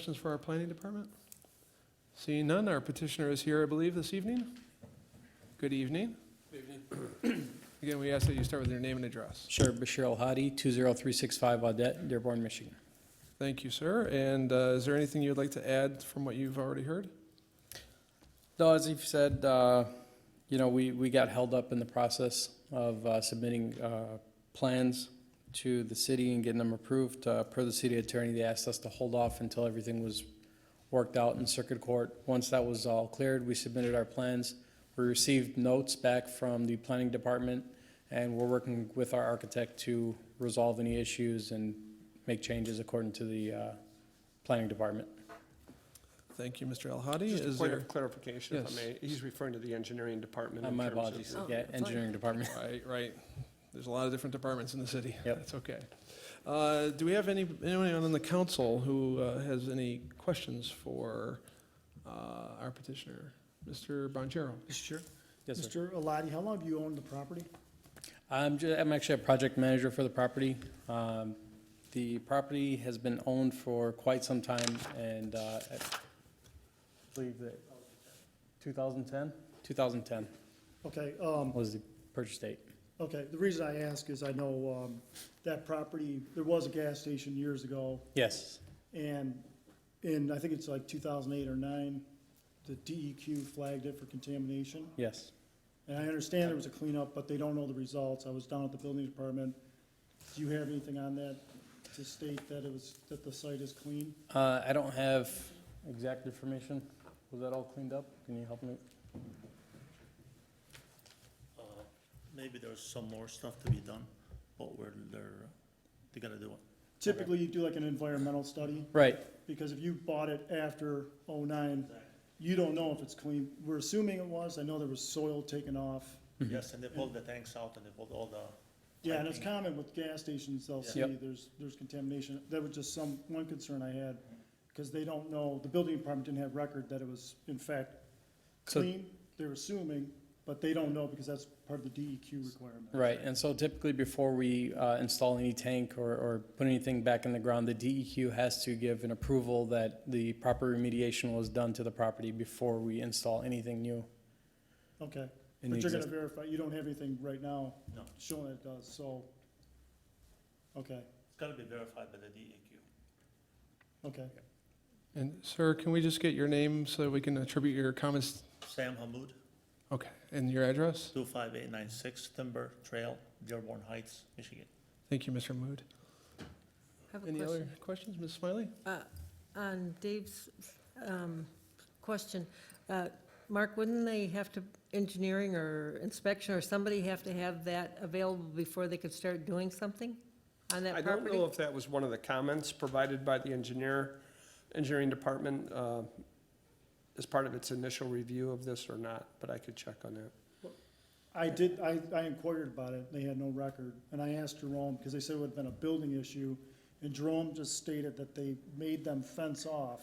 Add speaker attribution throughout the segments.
Speaker 1: Questions for our planning department? Seeing none, our petitioner is here, I believe, this evening. Good evening. Again, we ask that you start with your name and address.
Speaker 2: Sure, Bashir Al-Hadi, 20365 Audette, Dearborn, Michigan.
Speaker 1: Thank you, sir. And uh, is there anything you'd like to add from what you've already heard?
Speaker 2: No, as you've said, uh, you know, we, we got held up in the process of uh, submitting uh, plans to the city and getting them approved. Uh, Per the city attorney, they asked us to hold off until everything was worked out in circuit court. Once that was all cleared, we submitted our plans. We received notes back from the planning department, and we're working with our architect to resolve any issues and make changes according to the uh, planning department.
Speaker 1: Thank you, Mr. Al-Hadi.
Speaker 3: Just a
Speaker 1: Is
Speaker 3: point
Speaker 1: there?
Speaker 3: of clarification, if I
Speaker 1: Yes.
Speaker 3: may. He's referring to the engineering department
Speaker 2: Uh,
Speaker 3: in
Speaker 2: My
Speaker 3: terms of-
Speaker 2: apologies,
Speaker 4: Oh,
Speaker 2: yeah,
Speaker 4: fine.
Speaker 2: engineering department.
Speaker 1: Right, right. There's a lot of different departments in the city.
Speaker 2: Yep.
Speaker 1: That's okay. Uh, Do we have any, anyone on the council who uh, has any questions for uh, our petitioner? Mr. Bonjero?
Speaker 5: Mr. Chair,
Speaker 2: Yes, sir.
Speaker 5: Mr. Aladi, how long have you owned the property?
Speaker 2: I'm, ju- I'm actually a project manager for the property. Um, The property has been owned for quite some time and uh, I believe that 2010? 2010
Speaker 5: Okay, um,
Speaker 2: was the purchase date.
Speaker 5: okay, the reason I ask is I know, um, that property, there was a gas station years ago,
Speaker 2: Yes,
Speaker 5: and in, I think it's like two thousand eight or nine, the DEQ flagged it for contamination.
Speaker 2: yes.
Speaker 5: And I understand there was a cleanup, but they don't know the results. I was down at the building department. Do you have anything on that to state that it was, that the site is clean?
Speaker 2: Uh, I don't have exact information. Was that all cleaned up? Can you help me?
Speaker 6: Uh, Maybe there's some more stuff to be done, but we're, they're, they gotta do it.
Speaker 5: Typically, you do like an environmental study.
Speaker 2: Right,
Speaker 5: because if you bought it after '09, you don't know if it's clean. We're assuming it was, I know there was soil taken off.
Speaker 2: Mm-hmm.
Speaker 6: Yes, and they pulled the tanks out and they pulled all the,
Speaker 5: Yeah, and it's
Speaker 6: Piping.
Speaker 5: common with gas stations, they'll see
Speaker 2: Yep.
Speaker 5: there's, there's contamination. That was just some, one concern I had, because they don't know, the building department didn't have record that it was in fact
Speaker 2: So-
Speaker 5: clean, they're assuming, but they don't know because that's part of the DEQ requirement.
Speaker 2: Right, and so typically before we uh, install any tank or, or put anything back in the ground, the DEQ has to give an approval that the proper remediation was done to the property before we install anything new.
Speaker 5: Okay,
Speaker 2: in the
Speaker 5: but you're gonna
Speaker 2: exist-
Speaker 5: verify, you don't have anything right now
Speaker 6: no,
Speaker 5: showing it does, so, okay,
Speaker 6: it's gotta be verified by the E DEQ.
Speaker 5: okay.
Speaker 1: And sir, can we just get your name so we can attribute your comments?
Speaker 6: Sam Hamud,
Speaker 1: Okay, and your address?
Speaker 6: two five eight nine six Timber Trail, Dearborn Heights, Michigan.
Speaker 1: Thank you, Mr. Mood.
Speaker 4: I have a
Speaker 1: Any other
Speaker 4: question.
Speaker 1: questions, Ms. Smiley?
Speaker 4: Uh, On Dave's um, question, uh, Mark, wouldn't they have to, engineering or inspection or somebody have to have that available before they could start doing something on
Speaker 3: I
Speaker 4: that
Speaker 3: don't
Speaker 4: property?
Speaker 3: know if that was one of the comments provided by the engineer, engineering department, uh, as part of its initial review of this or not, but I could check on that.
Speaker 5: I did, I, I inquired about it, they had no record, and I asked Jerome, because they said it would have been a building issue, and Jerome just stated that they made them fence off.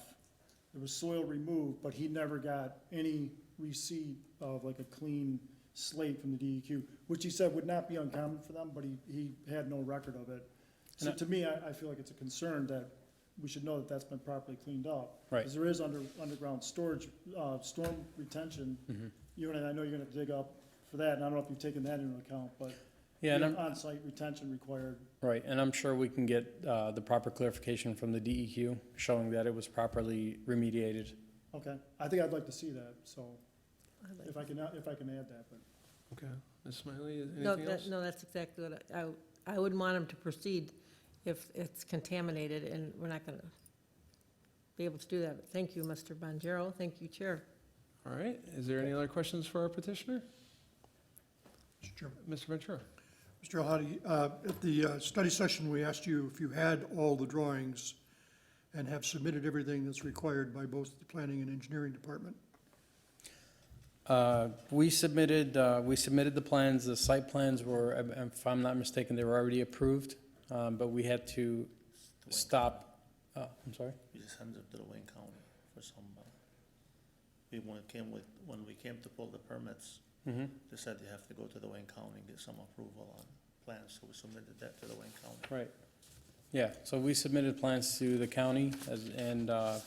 Speaker 5: There was soil removed, but he never got any receipt of like a clean slate from the DEQ, which he said would not be uncommon for them, but he, he had no record of it. So
Speaker 2: And I-
Speaker 5: to me, I, I feel like it's a concern that we should know that that's been properly cleaned up.
Speaker 2: Right.
Speaker 5: Because there is under, underground storage, uh, storm retention
Speaker 2: Mhm.
Speaker 5: you and I know you're gonna have to dig up for that, and I don't know if you've taken that into account, but
Speaker 2: Yeah, and I'm,
Speaker 5: on-site retention required.
Speaker 2: right, and I'm sure we can get uh, the proper clarification from the DEQ showing that it was properly remediated.
Speaker 5: Okay, I think I'd like to see that, so
Speaker 4: I'd like-
Speaker 5: if I can, if I can add that, but,
Speaker 1: Okay, Ms. Smiley, is
Speaker 4: No,
Speaker 1: anything
Speaker 4: that-
Speaker 1: else?
Speaker 4: No, that's exactly what I, I- I wouldn't want them to proceed if it's contaminated, and we're not going to be able to do that. But Thank you, Mr. Bonjero. Thank you, Chair.
Speaker 1: All right, is there any other questions for our petitioner?
Speaker 7: Mr. Chairman.
Speaker 1: Mr. Ventura?
Speaker 7: Mr. Hadi, uh, at the uh, study session, we asked you if you had all the drawings and have submitted everything that's required by both the planning and engineering department.
Speaker 2: Uh, We submitted, uh, we submitted the plans, the site plans were, if I'm not mistaken, they were already approved, um, but we had to
Speaker 6: Wayne
Speaker 2: stop, uh, I'm sorry?
Speaker 6: County. We just sends it to the Wayne County for some, uh, we, when it came with, when we came to pull the permits,
Speaker 2: Mm-hmm.
Speaker 6: they said you have to go to the Wayne County and get some approval on plans, so we submitted that to the Wayne County.
Speaker 2: Right. Yeah, so we submitted plans to the county as, and, uh,